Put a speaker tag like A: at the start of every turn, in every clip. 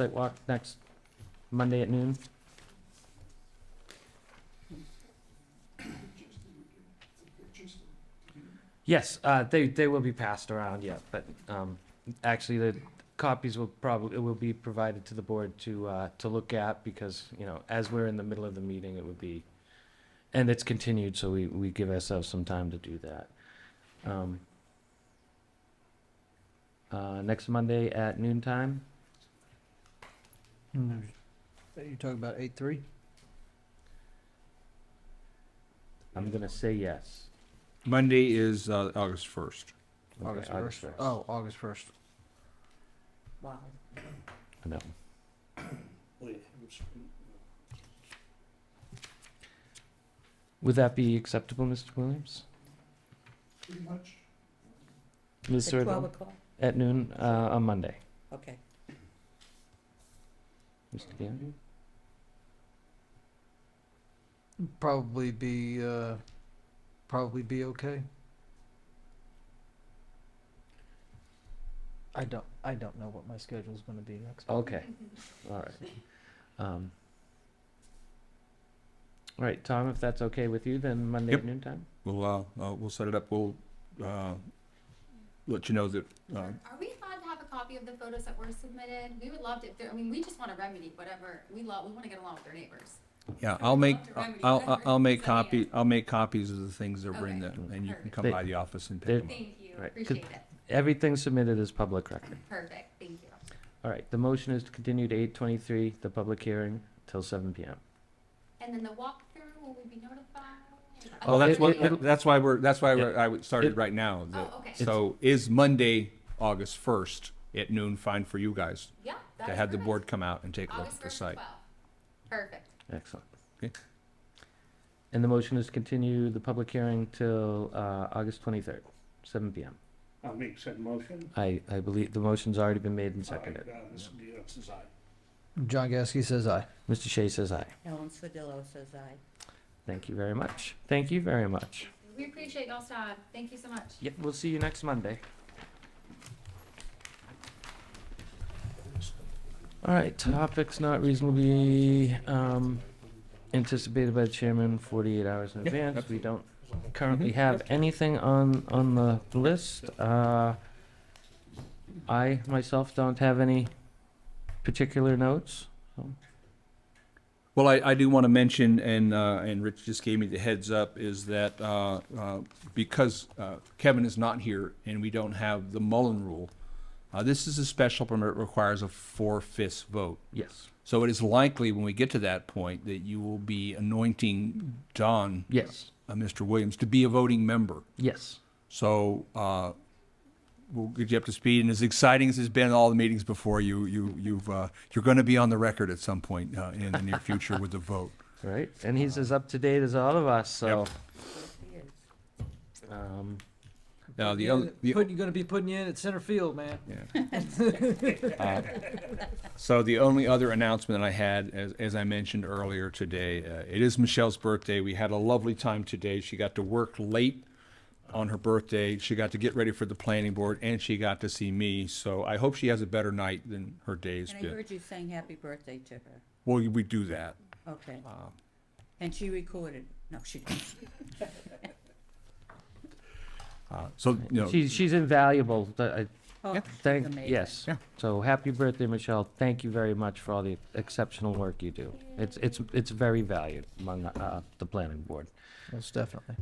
A: site walk next Monday at noon. Yes, uh, they, they will be passed around, yeah, but, um, actually, the copies will probably, will be provided to the board to, uh, to look at, because, you know, as we're in the middle of the meeting, it would be, and it's continued, so we, we give ourselves some time to do that. Um, uh, next Monday at noon time? Mm-hmm.
B: You talking about eight three?
A: I'm gonna say yes.
C: Monday is uh, August 1st.
A: Okay,
B: August
A: August
B: first.
A: 1st.
B: Oh, August first.
D: Wow.
A: I know. Would that be acceptable, Mr. Williams? Pretty much. Ms.
D: At twelve
A: Sardell,
D: o'clock,
A: at noon, uh, on Monday,
D: okay.
A: Mr. Gannon?
B: Probably be uh, probably be okay. I don't I don't know what my schedule's gonna be next. month.
A: Okay, all right. Um, All right, Tom, if that's okay with you, then Monday at
C: Yep.
A: noon time?
C: We'll, uh, uh, we'll set it up. We'll uh, let you know that. Uh,
E: Are we allowed to have a copy of the photos that were submitted? We would love to, if there- I mean, we just want to remedy whatever, we love, we want to get along with our neighbors.
C: yeah, I'll make I'll, I'll, I'll make
E: Send me
C: copy I'll make copies of the things that were in there,
E: Okay.
C: and you can
E: Perfect.
C: come by the office and
A: They-
C: pick them up.
E: Thank you,
A: Right.
E: appreciate it.
A: Everything submitted is public record.
E: Perfect, thank you.
A: All right, the motion is to continue to eight twenty-three, the public hearing, till seven PM.
E: And then the walkthrough, will we be notified?
A: Oh,
C: Well, that's
A: it-
C: what
A: it- it'll-
C: that's why we're that's why
A: Yeah.
C: we're, I would- started
A: It-
C: right now. that-
E: Oh, okay.
C: So is Monday August 1st at noon fine for you guys
E: Yeah.
C: to
E: that's
C: have the
E: perfect.
C: board come out and take a look at
E: August
C: the
E: first as
C: site?
E: well. Perfect,
A: Excellent.
C: Okay.
A: And the motion is to continue the public hearing till, uh, August twenty-third, seven PM.
F: I'll make said motion.
A: I, I believe the motion's already been made and
F: All
A: seconded.
F: right, uh, Mr. Dion says aye.
B: John Gasky says aye.
A: Mr. Shea says aye.
D: Ellen Sodillo says aye.
A: Thank you very much. Thank you very much.
E: we appreciate y'all's time, thank you so much.
A: Yep, we'll see you next Monday. All right, topics not reasonably, um, anticipated by the chairman forty-eight hours in
C: Yeah,
A: advance. We don't currently have anything on, on the list. Uh, I myself don't have any particular notes.
C: Well, I, I do want to mention, and, uh, and Rich just gave me the heads up, is that, uh, uh, because, uh, Kevin is not here and we don't have the Mullen rule, uh, this is a special permit requires a four-fifths vote.
A: Yes,
C: So it is likely when we get to that point that you will be anointing Don,
A: yes,
C: uh, Mr. Williams, to be a voting member.
A: yes.
C: So, uh, we'll get you up to speed and as exciting as it's been all the meetings before, you, you, you've, uh, you're going to be on the record at some point, uh, in the near future with the vote.
A: Right, and he's as up to date as all of us, so,
C: Yep.
D: Yes, he is.
A: um,
C: Now, the
B: Yeah,
C: other, the,
B: putting- you're gonna be putting you in at center field, man.
C: Uh, So the only other announcement I had, as, as I mentioned earlier today, uh, it is Michelle's birthday. We had a lovely time today. She got to work late on her birthday. She got to get ready for the planning board and she got to see me. So I hope she has a better night than her day's
D: And I
C: been.
D: heard you saying happy birthday to her.
C: Well, we do that.
D: Okay. And she recorded, no, she didn't.
C: Uh, so, you know,
A: she's, she's invaluable, but I,
D: Oh,
C: Yeah.
D: she's
A: Thank,
D: amazing.
A: yes.
C: Yeah.
A: So happy birthday, Michelle. Thank you very much for all the exceptional work you do. It's, it's, it's very valued among, uh, the planning board.
B: Most definitely.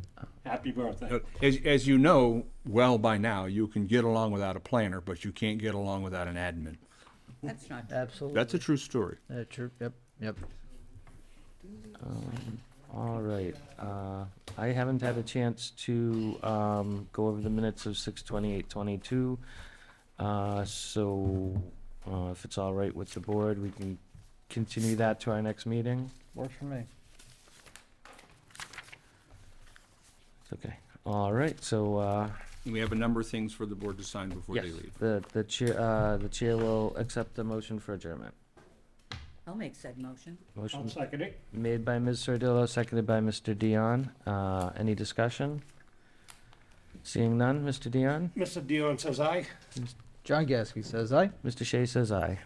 F: Happy birthday.
C: uh, as, as you know well by now, you can get along without a planner, but you can't get along without an admin.
D: That's not,
B: Absolutely.
C: That's a true story.
B: Uh, true. Yep. Yep.
A: Um, All right, uh, I haven't had a chance to, um, go over the minutes of six twenty-eight twenty-two. Uh, so, uh, if it's all right with the board, we can continue that to our next meeting.
B: Works for me.
A: Okay, all right, so, uh,
C: And we have a number of things for the board to sign before they
A: yes,
C: leave.
A: the, the chair, uh, the chair will accept the motion for adjournment.
D: I'll make said motion.
A: Motion
F: I'll second it.
A: Made by Ms. Sardillo, seconded by Mr. Dion. Uh, any discussion? Seeing none, Mr. Dion?
F: Mr. Dion says aye.
B: John Gasky says aye.
A: Mr. Shea says aye.